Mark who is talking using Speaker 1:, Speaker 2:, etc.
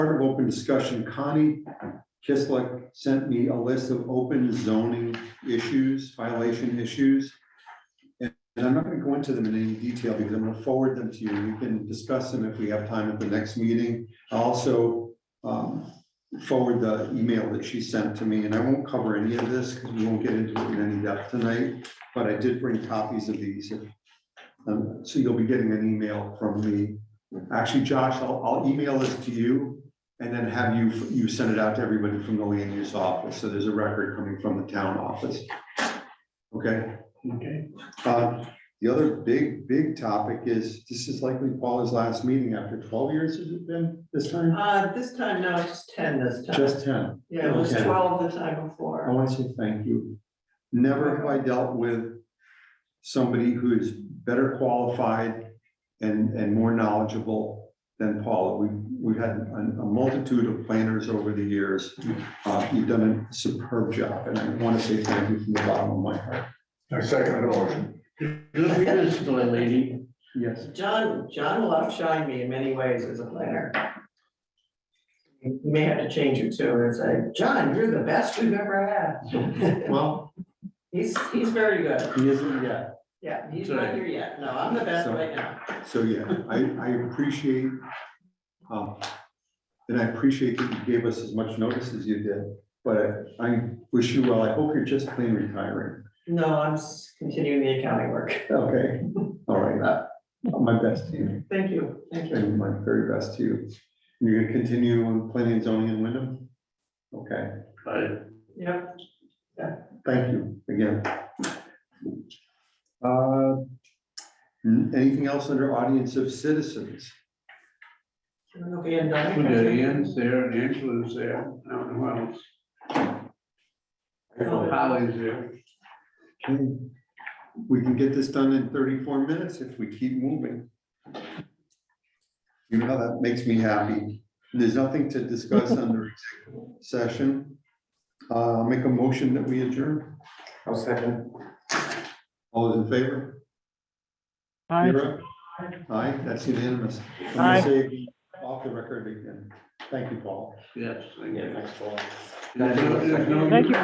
Speaker 1: part of open discussion, Connie Kislik sent me a list of open zoning issues, violation issues. And and I'm not gonna go into them in any detail because I'm gonna forward them to you. You can discuss them if we have time at the next meeting. I'll Also, um, forward the email that she sent to me, and I won't cover any of this because we won't get into it in any depth tonight. But I did bring copies of these. if- um, so you'll be getting an email from me. Actually, Josh, I'll, I'll email this to you and then have you, you send it out to everybody from the land use office, so there's a record coming from the town office. Okay,
Speaker 2: Okay,
Speaker 1: uh, the other big, big topic is, this is likely Paula's last meeting after twelve years, has it been this time?
Speaker 3: Uh, this time, no, it's ten this time.
Speaker 1: Just ten. Oh.
Speaker 3: Yeah, it was
Speaker 1: okay.
Speaker 3: twelve the time
Speaker 1: I
Speaker 3: before.
Speaker 1: want to say thank you. Never have I dealt with somebody who is better qualified and, and more knowledgeable than Paula. We, we've had a a multitude of planners over the years. Uh, You've done a superb job, and I want to say thank you from the bottom of my heart.
Speaker 4: I second the motion.
Speaker 2: good riddance, my lady.
Speaker 1: Yes.
Speaker 3: John, John will outshine me in many ways as a planner. You may have to change it too, and say, John, you're the best we've ever had.
Speaker 1: Well,
Speaker 3: He's, he's very good.
Speaker 1: he isn't yet.
Speaker 3: Yeah, he's not here yet. No, I'm the best right now.
Speaker 1: So, yeah, I, I appreciate, um, and I appreciate that you gave us as much notice as you did, but I wish you well. I hope you're just plain retiring.
Speaker 3: No, I'm s- continuing the accounting work.
Speaker 1: Okay, all right, uh, my best to you,
Speaker 3: Thank you, thank you.
Speaker 1: and my very best to you. You're gonna continue on planning and zoning in Wyndham? Okay,
Speaker 2: I
Speaker 3: Yep,
Speaker 1: thank you again. Uh, n- Anything else under audience of citizens?
Speaker 3: okay, and
Speaker 2: put
Speaker 3: done.
Speaker 2: the Ian's there, and Angela's there, I don't know who else. Oh, Holly's there.
Speaker 1: Okay, We can get this done in thirty-four minutes if we keep moving. You know how that makes me happy. There's nothing to discuss under executive session. Uh, I'll make a motion that we adjourn.
Speaker 4: I'll second.
Speaker 1: All those in favor? Vera? Aye, that's unanimous. I'm gonna
Speaker 5: Aye.
Speaker 1: say Off the record again. Thank you, Paul.
Speaker 2: Yes. thank you.
Speaker 4: thanks, Paul.
Speaker 2: There's no- there's no-
Speaker 5: Thank you.